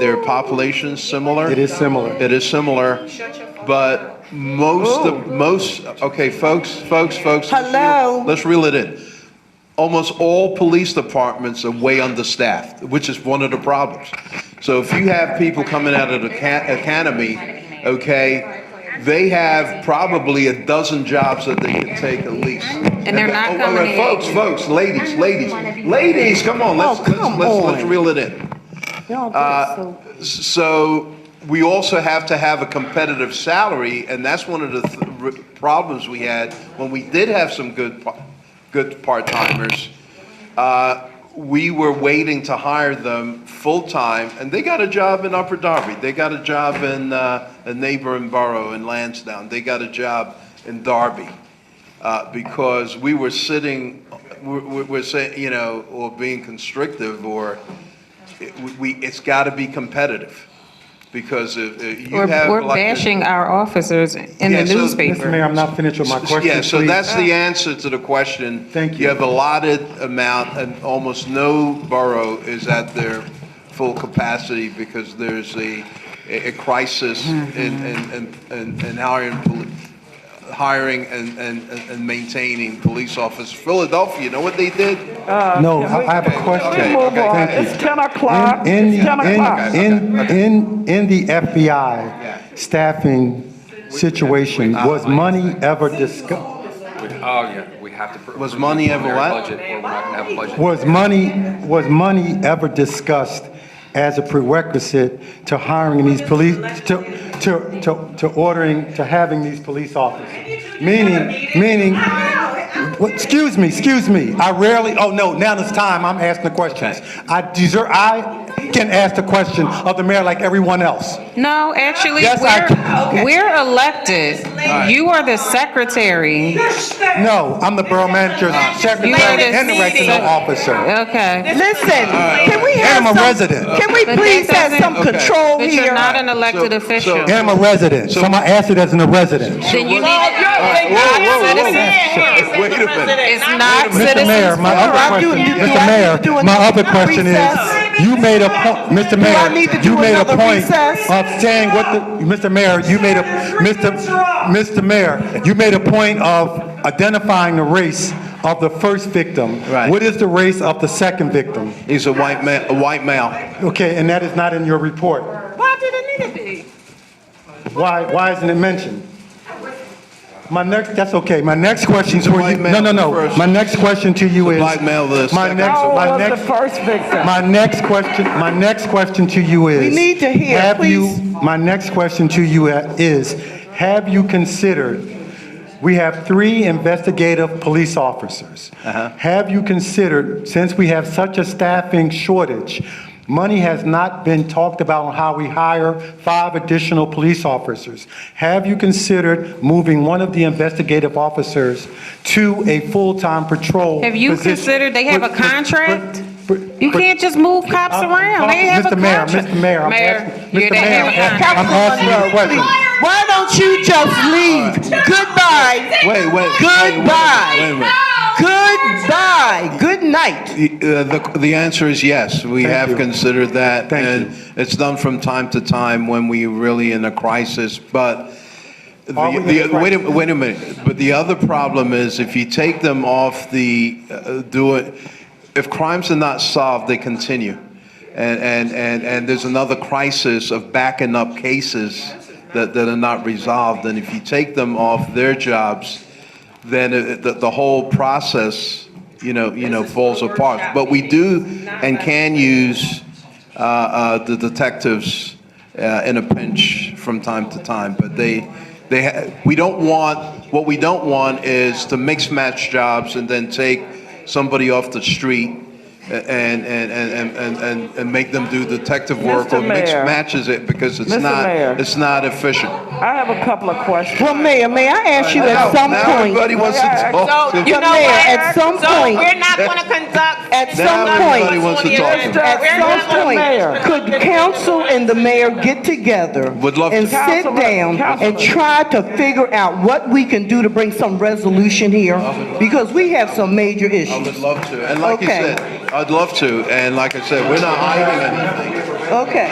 Their population's similar. It is similar. It is similar, but most, of- most, okay, folks, folks, folks. let's reel- Hello? Let's reel it in. Almost all police departments are way understaffed, which is one of the problems. So if you have people coming out of the ca- academy, okay, they have probably a dozen jobs that they can take at least. And they're Oh, not wait, coming wait, in. Folks, folks, ladies, ladies, ladies, come on, let's, Oh, let's, come let's let's on. reel it in. Y'all Uh, good, so- s- So we also have to have a competitive salary, and that's one of the th- r- problems we had when we did have some good, pa- good part-timers. uh, We were waiting to hire them full-time, and they got a job in Upper Darby. They got a job in uh, a neighboring borough in Lansdowne. They got a job in Darby. uh, Because we were sitting, we're- we're we're saying, you know, or being constrictive or it- we- we, it's got to be competitive, because if if you We're, have. we're like- bashing our officers in Yeah, the so- Mr. newspaper. Mayor, I'm not finished with my question, Yeah, so please. that's the answer to the question. Thank You you. have allotted amount, and almost no borough is at their full capacity because there's a, a a crisis in, in, in- in, in hiring, poli- hiring and, and, and maintaining police officers. Philadelphia, you know what they did? Uh, No, I I have a Okay, question. Move okay, on. thank It's 10 o'clock. In, It's 10 o'clock. in, in, in, in the FBI staffing situation, was money ever discussed? We- Oh, yeah, we have to. pr- Was money ever preliminary what? Budget, or we're not gonna have a budget. Was money, was money ever discussed as a prerequisite to hiring these police, to, to, to, to ordering, to having these police officers? Meaning, meaning, what, excuse me, excuse me, I rarely, oh no, now it's time, I'm asking the questions. I deserve, I can ask the question of the mayor like everyone else. No, actually, Yes, I- we're, we're elected. You are the secretary. No, I'm the borough manager, secretary, and the meeting. regional officer. Okay. Listen, can we And I'm have a some, resident. can we But please that have some doesn't- control But you're here? not an elected So- official. so- And I'm a resident, so I'm gonna ask it as a resident. Then you need, Whoa, whoa, whoa, It's whoa. Wait a minute. not Mr. Mayor, citizens. my All right, other you- question, you- do I Mr. need to do Mayor, my another other question is, recess? you made a, po- Mr. I need to Mayor, do you made a another point recess? of saying what the, Mr. Mayor, you made a, Mr. Mr. Mayor, you made a point of identifying the race of the first victim. Right. What is the race of the second victim? He's a white man, a white male. Okay, and that is not in your report. Why did it need to be? Why, why isn't it mentioned? My next, that's okay, my next question a for white you, male no, no, no, first. my next question to you He's a is. black male, the My second- next, How my was the next, first victim? my next question, my next question to you is. We need to hear, have you- please. My next question to you uh, is, have you considered, we have three investigative police officers. Have you considered, since we have such a staffing shortage, money has not been talked about on how we hire five additional police officers. Have you considered moving one of the investigative officers to a full-time patrol Have you position? considered they have a But- but- but- contract? but- You but- can't just move cops I'm- I'm around. They talking- have a Mr. Mayor, contract. Mr. Mayor, I'm Mayor, asking- you Mr. didn't Mayor, have a I'm asking- contract. I'm asking you a question. Why don't you just leave? Goodbye. Wait, wait. wait, wait a minute, Goodbye. Wait a minute. Goodbye. Good night. The, uh, the- the answer is yes. We Thank have you. considered that. Thank And it's done from time to time when we really in a crisis, but the, Are we in a the- wait a, wait a minute. But the other problem is if you take them off the, uh, do it, if crimes are not solved, they continue. And, and, and, and there's another crisis of backing up cases that, that are not resolved. And if you take them off their jobs, then it- the, the whole process, you know, you know, falls apart. But we do and can use uh, uh, the detectives uh, in a pinch from time to time, but they, they, ha- we don't want, what we don't want is to mix match jobs and then take somebody off the street a- and, and, and, and, and, and make them do detective work or Mr. mix Mayor. matches it because it's Mr. Mayor. not, it's not efficient. I have a couple of questions. Well, Mayor, may I ask you Now- at some now point, everybody wants to talk. you know what? At some point- So we're not gonna conduct. at Now some everybody point, wants to Let's do talk. it. We're at not some gonna- point, could council and the mayor get together? Would love And to. sit Councilman- down and Councilman. try to figure out what we can do to bring some resolution here? Because we have some major I issues. would love to, and like you Okay. said, I'd love to, and like I said, we're not hiding anything. Okay.